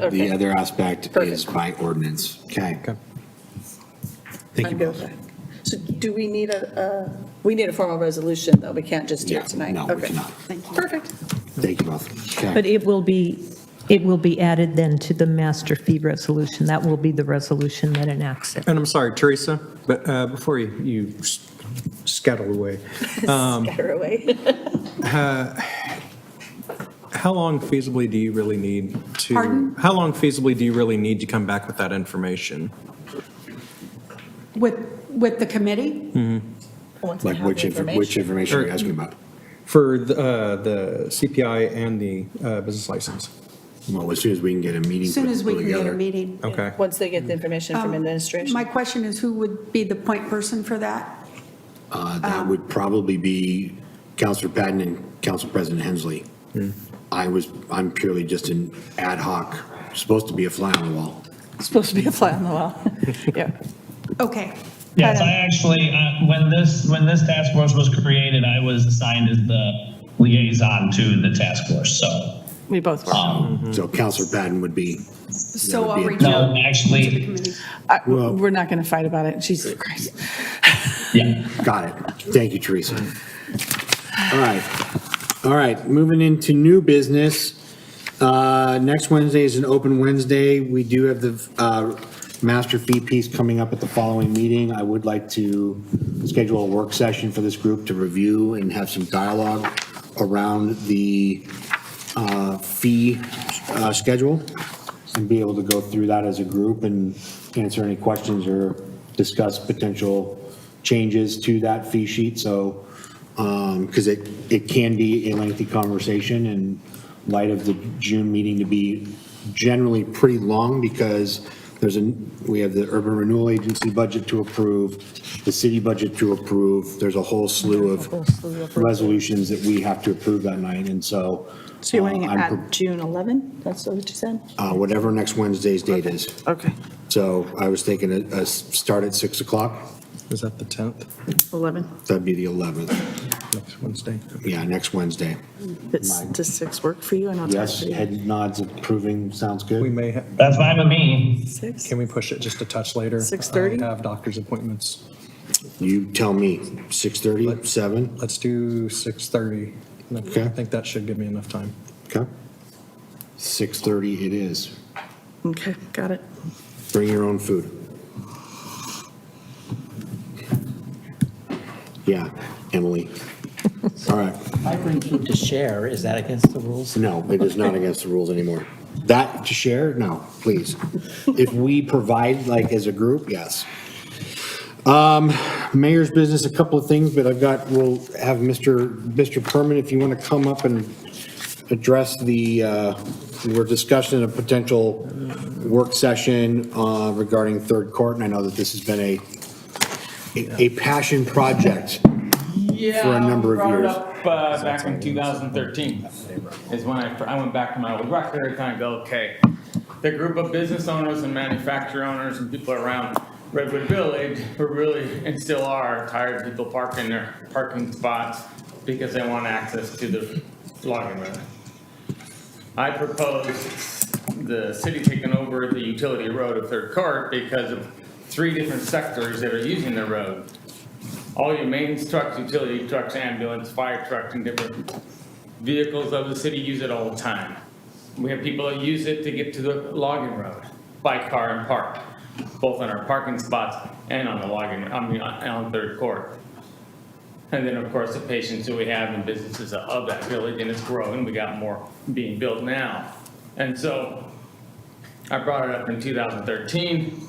Okay. The other aspect is by ordinance. Okay. Thank you both. So do we need a, a- we need a formal resolution, though? We can't just do Yeah, it tonight? no, we Okay. cannot. Perfect. Thank you both. But Okay. it will be, it will be added then to the master fee resolution. That will be the resolution that enacts it. And I'm sorry, Teresa, but uh, before you you s- scuttle away, Um, Scatter away. how long feasibly do you really need to? Pardon? How long feasibly do you really need to come back with that information? With, with the committee? Once we Like have which, the inf- which information. information are you asking about? For the uh, the CPI and the uh, business license? Well, as soon as we can get a meeting. As soon as we put can get a together. Oh. meeting. Um, Okay. Once they get the information Um, from My administration. question is, who would be the point person for that? Uh, um, That would probably be Counselor Patton and Council President Hensley. I was, I'm purely just an ad hoc, supposed to be a fly on the wall. Supposed to be a fly on the wall. Yeah. Okay. Yes, But, um, I actually, uh, when this, when this task force was created, I was assigned as the liaison to the task force, so. um, We both were. So Counselor Patton would be, So be I'll a- reach out No, to the actually, committee. I- well- We're not going to fight about it. Jesus Christ. yeah. got it. Thank you, Teresa. All right. All right, moving into new business. Uh, Next Wednesday is an open Wednesday. We do have the uh, master fee piece coming up at the following meeting. I would like to schedule a work session for this group to review and have some dialogue around the uh, fee uh, schedule and be able to go through that as a group and answer any questions or discuss potential changes to that fee sheet. So, because it, it can be a lengthy conversation in light of the June meeting to be generally pretty long because there's a, we have the Urban Renewal Agency budget to approve, the city budget to approve. There's a whole slew of resolutions that we have to approve that night. And so. So you're wanting uh, to I'm add June 11? That's what you said? uh, whatever next Wednesday's date is. Okay. So I was thinking a, a s- start at 6 o'clock, Is that the 10th, 11. that'd be the 11th, next Wednesday? yeah, next Wednesday. It's- Does six work for you? I know it's hard Yes, for you. head nods approving, sounds We good. may, ha- That's fine with me. Six? can we push it just a touch later? 6:30? I have doctor's appointments. You tell me, 6:30, 7? Let's do 6:30. Okay. I think that should give me enough time. Okay. 6:30 it is. Okay, got it. Bring your own food. Yeah, Emily. All right. I bring food to share, is that against the rules? No, it is not against the rules anymore. That to share, no, please. If we provide, like, as a group, yes. Um, Mayor's business, a couple of things, but I've got, we'll have Mr. Mr. Perman, if you want to come up and address the, uh, we're discussing a potential work session uh, regarding Third Court, and I know that this has been a, a- a passion project. yeah, for a number of brought it years. up, uh, back in 2013 is when I, I went back to my old record. I kind of go, okay, the group of business owners and manufacturer owners and people around Redwood Village who really and still are tired of people parking their parking spots because they want access to the logging road. I proposed the city taking over the utility road of Third Court because of three different sectors that are using the road. All your maintenance trucks, utility trucks, ambulance, fire trucks, and different vehicles of the city use it all the time. We have people that use it to get to the logging road by car and park, both on our parking spots and on the logging, I mean, on on Third Court. And then, of course, the patients that we have and businesses of that village, and it's growing, we got more being built now. And so I brought it up in 2013.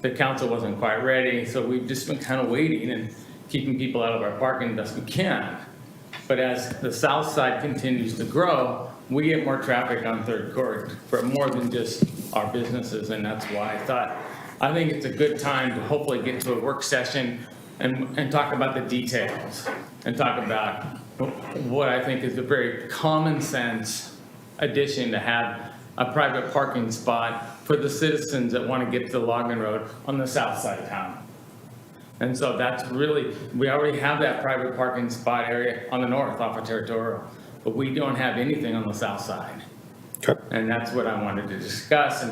The council wasn't quite ready, so we've just been kind of waiting and keeping people out of our parking best we can. But as the south side continues to grow, we get more traffic on Third Court for more than just our businesses, and that's why I thought, I think it's a good time to hopefully get to a work session and, and talk about the details, and talk about what I think is a very common sense addition to have a private parking spot for the citizens that want to get to the Logan Road on the south side of town. And so that's really, we already have that private parking spot area on the north off of Territorial, but we don't have anything on the south side. Okay. And that's what I wanted to discuss and